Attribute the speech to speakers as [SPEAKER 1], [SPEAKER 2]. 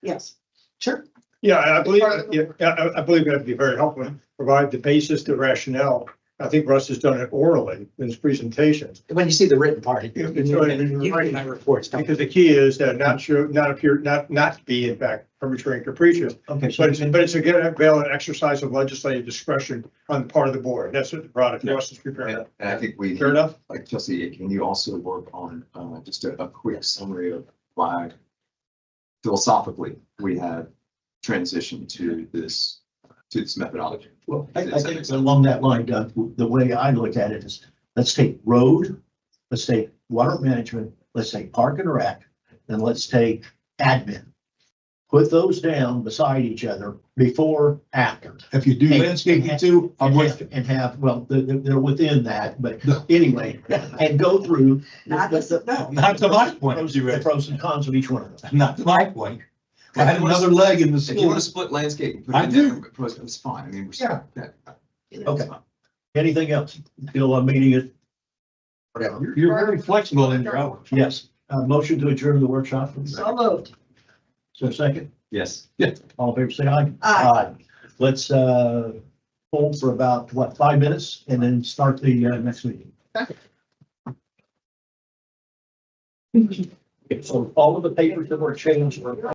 [SPEAKER 1] Yes, sure.
[SPEAKER 2] Yeah, I believe,
[SPEAKER 1] Part of the
[SPEAKER 2] yeah, I, I believe that'd be very helpful, provide the basis, the rationale. I think Russ has done it orally in his presentations.
[SPEAKER 1] When you see the written part.
[SPEAKER 2] Yeah,
[SPEAKER 1] you
[SPEAKER 2] it's already been
[SPEAKER 1] can- you can
[SPEAKER 2] written.
[SPEAKER 1] have reports, don't
[SPEAKER 2] Because
[SPEAKER 1] you?
[SPEAKER 2] the key is that not sure, not appear, not, not be in fact arbitrary and capricious.
[SPEAKER 3] Okay,
[SPEAKER 2] But
[SPEAKER 3] so,
[SPEAKER 2] it's, but it's again, a valid exercise of legislative discretion on the part of the board. That's what the product Russ is preparing.
[SPEAKER 4] And and I think we,
[SPEAKER 2] Fair enough?
[SPEAKER 4] like Chelsea, can you also work on uh just a a quick summary of why philosophically we have transitioned to this, to this methodology?
[SPEAKER 3] well, I, I think along that line, Doug, the way I look at it is, let's take road, let's take water management, let's take park and rec, and let's take admin. Put those down beside each other before, after.
[SPEAKER 5] If you do
[SPEAKER 3] Hey,
[SPEAKER 5] landscaping
[SPEAKER 3] yeah.
[SPEAKER 5] too, I'm
[SPEAKER 3] And
[SPEAKER 5] with
[SPEAKER 3] have,
[SPEAKER 5] you.
[SPEAKER 3] and have, well, they're, they're they're within that, but anyway, and go through.
[SPEAKER 1] Not
[SPEAKER 3] the-
[SPEAKER 1] this- no.
[SPEAKER 5] Not to my point,
[SPEAKER 3] The
[SPEAKER 5] Rosie Redd.
[SPEAKER 3] pros and cons of each one of them.
[SPEAKER 5] Not to my point. I
[SPEAKER 4] If
[SPEAKER 5] had
[SPEAKER 4] you wanna-
[SPEAKER 5] another leg in the
[SPEAKER 4] If you
[SPEAKER 5] stool.
[SPEAKER 4] want to split landscape and put it
[SPEAKER 5] I
[SPEAKER 4] in
[SPEAKER 5] do.
[SPEAKER 4] there, pros- it's fine. I mean, we're.
[SPEAKER 5] Yeah.
[SPEAKER 4] that- that's
[SPEAKER 3] Okay.
[SPEAKER 4] fine.
[SPEAKER 3] Anything else? Bill, I'm meeting it.
[SPEAKER 5] You're, you're very flexible in your hours.
[SPEAKER 3] Yes. Uh, motion to adjourn the workshop. please.
[SPEAKER 1] So moved.
[SPEAKER 3] So second,
[SPEAKER 4] Yes, yeah.
[SPEAKER 3] all in favor, say aye.
[SPEAKER 1] Aye.
[SPEAKER 3] Let's, uh, hold for about, what, five minutes and then start the, uh, next meeting. So all of the papers that were changed were.